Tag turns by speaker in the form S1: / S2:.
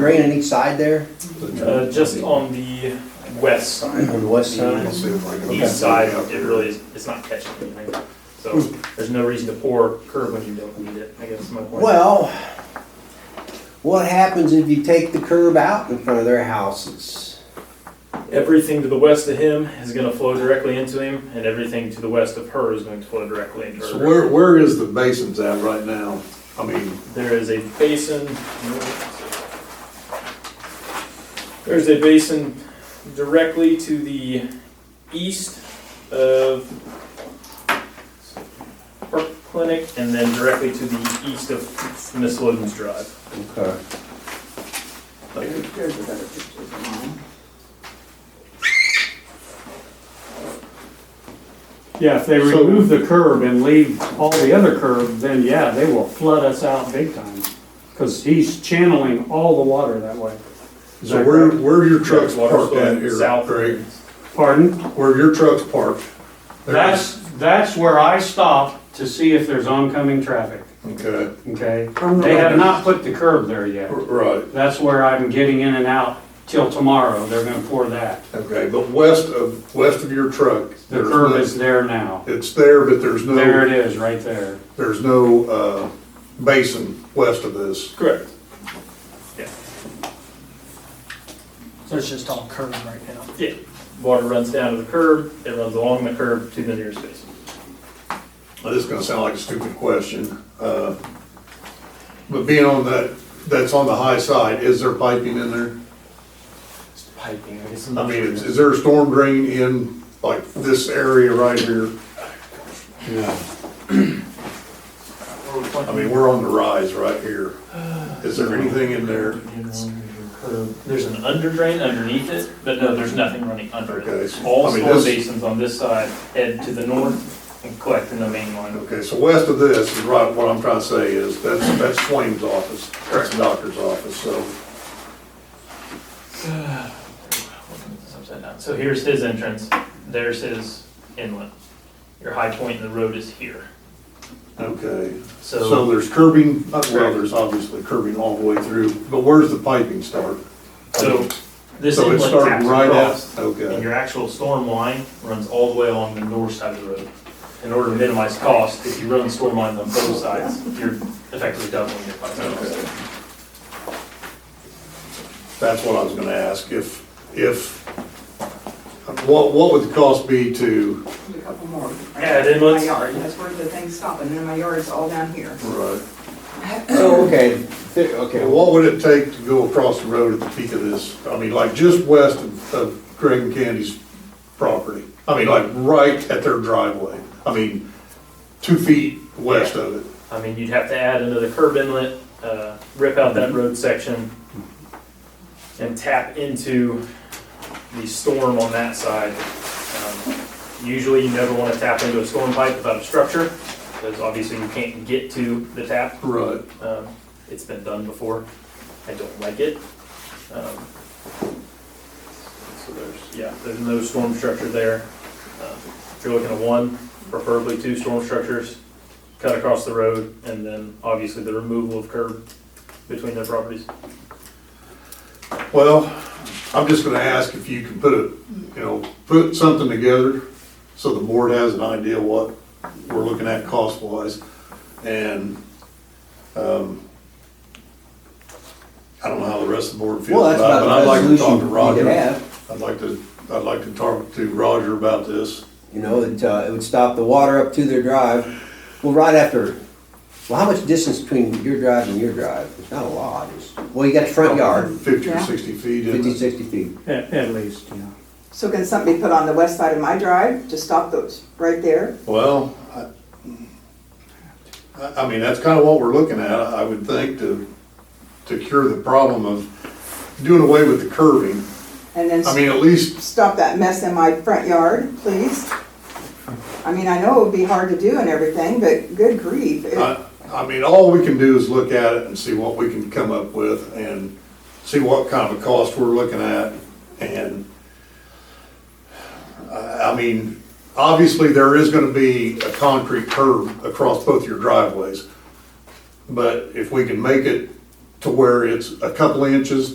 S1: Green on each side there,
S2: Uh, just on the west side,
S1: on the west
S2: Uh,
S1: side.
S2: east side, it really is, it's not catching anything. So there's no reason to pour curb when you don't need it, I guess is my point.
S1: Well, what happens if you take the curb out in front of their houses?
S2: Everything to the west of him is gonna flow directly into him, and everything to the west of her is going to flow directly into
S3: So
S2: her.
S3: where, where is the basins at right now? I mean,
S2: There is a basin. There's a basin directly to the east of Park Clinic, and then directly to the east of Miss Loden's Drive.
S1: Okay.
S2: Like,
S4: There's a better picture than mine.
S5: Yeah, if they
S3: So-
S5: remove the curb and leave all the other curb, then yeah, they will flood us out big time. Cause he's channeling all the water that way.
S3: so where, where are your trucks
S2: water
S3: parked
S2: flow
S3: at here,
S2: south.
S3: Craig?
S5: Pardon?
S3: Where are your trucks parked?
S5: That's, that's where I stop to see if there's oncoming traffic,
S3: Okay,
S5: okay?
S4: From the
S5: They have
S4: road.
S5: not put the curb there
S3: r-
S5: yet.
S3: right,
S5: That's where I'm getting in and out till tomorrow. They're gonna pour that.
S3: okay, but west of, west of your truck.
S5: The
S3: there's
S5: curb
S3: no-
S5: is there now.
S3: It's there, but there's no,
S5: There it is, right there.
S3: there's no, uh, basin west of this.
S2: Correct.
S6: So it's just all curved right now.
S2: Yeah, water runs down to the curb, it runs along the curb to the nearest basin.
S3: Well, This is gonna sound like a stupid question, uh, but being on that, that's on the high side, is there piping in there?
S2: It's piping, I guess.
S3: I mean, is, is there a storm drain in, like, this area right here? Yeah. I mean, we're on the rise right here. Is there anything in there?
S2: There's an under drain underneath it, but no, there's nothing running under
S3: Okay,
S2: it.
S3: so,
S2: All
S3: I mean,
S2: storm
S3: this-
S2: basins on this side head to the north and collect in the main line.
S3: Okay, so west of this is right, what I'm trying to say is, that's, that's Swaim's office, that's the doctor's office, so.
S2: So here's his entrance, there's his inlet. Your high point in the road is here,
S3: Okay, so
S2: so.
S3: there's curbing, well, there's obviously curbing all the way through, but where's the piping start?
S2: So this
S3: So it's
S2: inlet taps
S3: starting right at,
S2: across. And
S3: okay,
S2: your actual storm line runs all the way along the north side of the road. In order to minimize cost, if you run storm lines on both sides, you're effectively doubling your pipe cost.
S3: Okay. that's what I was gonna ask, if, if, what, what would the cost be to,
S4: There's A couple more.
S2: Yeah, then let's-
S4: My yard, that's where the thing's stopping, and then my yard's all down here.
S3: right?
S1: So, okay, thi- okay,
S3: Okay,
S1: well,
S3: what would it take to go across the road at the peak of this? I mean, like just west of- of Greg and Candy's property. I mean, like right at their driveway. I mean, two feet west of it.
S2: I mean, you'd have to add another curb inlet, uh, rip out that road section and tap into the storm on that side. Um, Usually you never wanna tap into a storm pipe without a structure, because obviously you can't get to the tap.
S3: Right.
S2: Um, it's been done before. I don't like it. Um, So there's, yeah, there's no storm structure there. Um, If you're looking at one, preferably two storm structures, cut across the road, and then obviously the removal of curb between their properties.
S3: Well, I'm just gonna ask if you can put a, you know, put something together so the board has an idea what we're looking at cost wise. And, um, I don't know how the rest of the board feels
S1: that's
S3: about it, but I'd
S1: about
S3: like
S1: the
S3: to talk
S1: resolution
S3: to
S1: you could
S3: Roger.
S1: have.
S3: I'd like to, I'd like to talk to Roger about this.
S1: You know, it, uh, it would stop the water up to their drive. Well, right after, well, how much distance between your drive and your drive? It's not a lot. It's- Well, you got the front yard,
S3: Fifty or
S4: Yeah.
S3: sixty feet, isn't
S1: fifty,
S3: it?
S1: sixty feet.
S5: At, at least, yeah.
S4: So can something be put on the west side of my drive to stop those, right there?
S3: Well, I- I, I mean, that's kind of what we're looking at, I would think, to, to cure the problem of doing away with the curving.
S4: And then
S3: I mean, at least,
S4: stop that mess in my front yard, please? I mean, I know it would be hard to do and everything, but good grief. it-
S3: I, I mean, all we can do is look at it and see what we can come up with and see what kind of a cost we're looking at. And, I, I mean, obviously, there is gonna be a concrete curb across both your driveways. But if we can make it to where it's a couple inches